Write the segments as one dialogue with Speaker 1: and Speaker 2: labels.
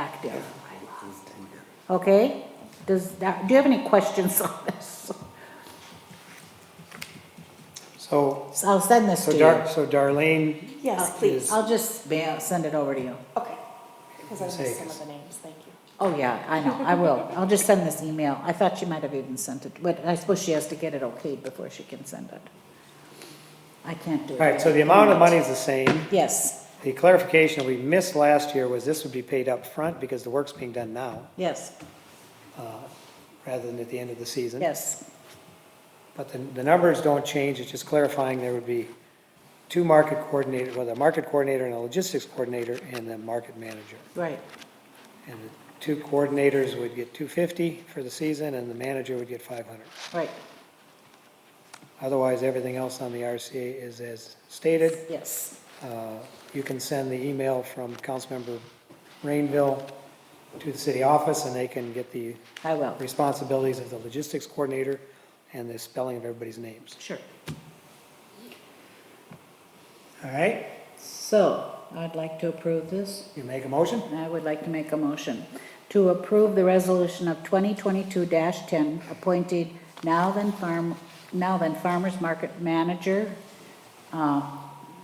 Speaker 1: active. Okay, does that, do you have any questions on this?
Speaker 2: So,
Speaker 1: So I'll send this
Speaker 2: so
Speaker 1: to
Speaker 2: Dar,
Speaker 1: you.
Speaker 2: so Darlene,
Speaker 3: Yes,
Speaker 1: I'll-
Speaker 3: please.
Speaker 1: I'll just ma- send it over to you.
Speaker 3: Okay. Because I
Speaker 2: Say,
Speaker 3: missed some of
Speaker 2: 'cause-
Speaker 3: the names, thank you.
Speaker 1: Oh, yeah, I know, I will. I'll just send this email. I thought she might have even sent it, but I suppose she has to get it okayed before she can send it. I can't do it.
Speaker 2: all right, so the amount of money is the same.
Speaker 1: Yes,
Speaker 2: The clarification we missed last year was this would be paid up front because the work's being done now, uh,
Speaker 1: yes,
Speaker 2: rather than at the end of the season.
Speaker 1: yes,
Speaker 2: But the, the numbers don't change, it's just clarifying there would be two market coordinators, well, the market coordinator and a logistics coordinator and the market manager.
Speaker 1: right,
Speaker 2: And the two coordinators would get two fifty for the season and the manager would get five hundred.
Speaker 1: right,
Speaker 2: Otherwise, everything else on the RCA is as stated.
Speaker 1: yes,
Speaker 2: Uh, You can send the email from Councilmember Rainville to the city office and they can get the
Speaker 1: I will,
Speaker 2: responsibilities of the logistics coordinator and the spelling of everybody's names.
Speaker 1: sure.
Speaker 2: All right,
Speaker 1: So, I'd like to approve this.
Speaker 2: you make a motion?
Speaker 1: I would like to make a motion to approve the resolution of 2022-10, appointed now then farm, now then farmer's market manager, uh,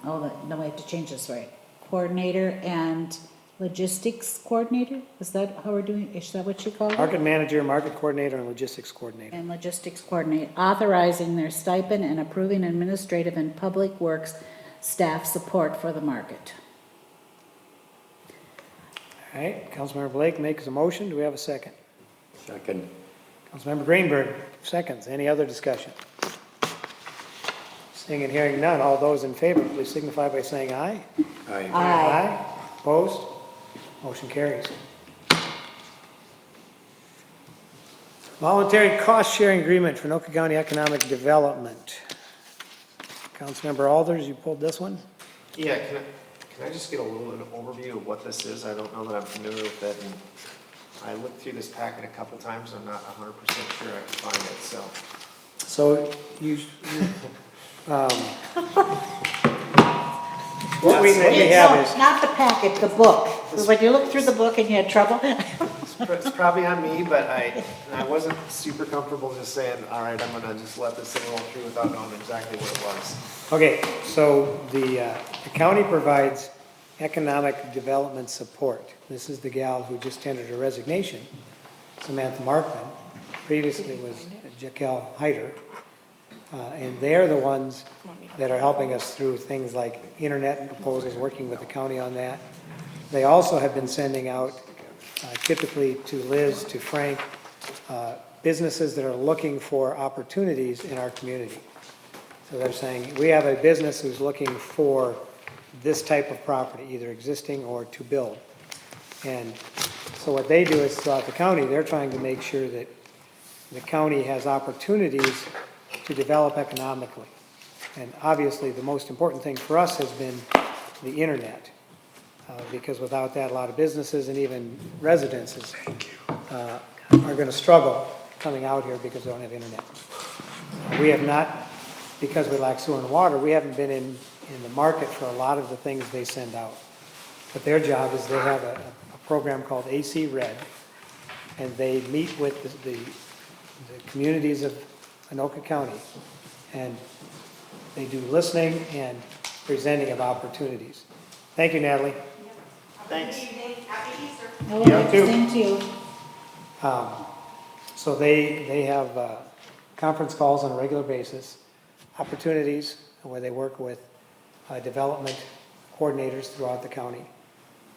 Speaker 1: oh, that- no, I have to change this, right? Coordinator and logistics coordinator? Is that how we're doing, is that what you call it?
Speaker 2: Market manager, market coordinator, and logistics coordinator.
Speaker 1: And logistics coordinator, authorizing their stipend and approving administrative and public works staff support for the market.
Speaker 2: All right, Councilmember Blake makes a motion, do we have a second?
Speaker 4: Second.
Speaker 2: Councilmember Greenberg, seconds, any other discussion? Seeing and hearing none, all those in favor, please signify by saying aye.
Speaker 4: Aye.
Speaker 1: Aye.
Speaker 2: Opposed? Motion carries. Voluntary cost-sharing agreement for Anoka County Economic Development. Councilmember Alders, you pulled this one?
Speaker 5: Yeah, can I, can I just get a little bit of overview of what this is? I don't know that I'm familiar with it, and I looked through this packet a couple times, I'm not hundred percent sure I can find it, so.
Speaker 2: So you, um, what we, what we have
Speaker 1: No,
Speaker 2: is,
Speaker 1: Not the packet, the book. When you look through the book and you had trouble,
Speaker 5: It's pr- It's probably on me, but I, and I wasn't super comfortable just saying, all right, I'm gonna just let this thing roll through without knowing exactly what it was.
Speaker 2: okay, so the, uh, the county provides economic development support. This is the gal who just tendered her resignation, Samantha Markman, previously was Jaquel Heider. Uh, and they're the ones that are helping us through things like internet proposals, working with the county on that. They also have been sending out uh, typically to Liz, to Frank, uh, businesses that are looking for opportunities in our community. So they're saying, we have a business who's looking for this type of property, either existing or to build. And so what they do is throughout the county, they're trying to make sure that the county has opportunities to develop economically. And obviously, the most important thing for us has been the internet, uh, because without that, a lot of businesses and even residences uh, are going to struggle coming out here because they don't have internet. We have not, because we lack sewer and water, we haven't been in, in the market for a lot of the things they send out. But their job is they have a, a program called AC Red, and they meet with the, the, the communities of Anoka County, and they do listening and presenting of opportunities. Thank you, Natalie.
Speaker 5: Thanks.
Speaker 1: I will
Speaker 2: Yeah, too.
Speaker 1: extend to you.
Speaker 2: Um, So they, they have uh, conference calls on a regular basis, opportunities where they work with uh, development coordinators throughout the county.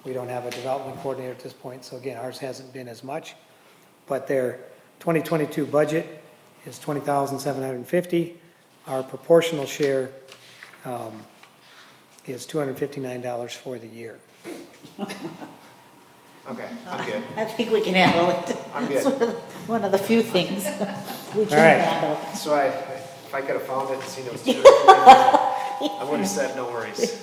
Speaker 2: We don't have a development coordinator at this point, so again, ours hasn't been as much. But their 2022 budget is 20,750. Our proportional share um, is $259 for the year.
Speaker 5: Okay, I'm good.
Speaker 1: I think we can handle it.
Speaker 5: I'm
Speaker 1: It's
Speaker 5: good.
Speaker 1: One of the few things we
Speaker 2: All right.
Speaker 1: can handle.
Speaker 5: So I, if I could have found it and seen it was two or three, I would have said no worries.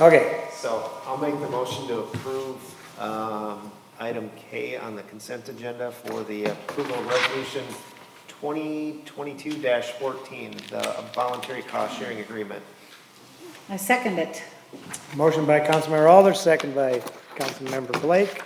Speaker 2: Okay,
Speaker 5: So I'll make the motion to approve um, item K on the consent agenda for the approval of resolution 2022-14, the voluntary cost-sharing agreement.
Speaker 1: I second it.
Speaker 2: Motion by Councilmember Alders, second by Councilmember Blake.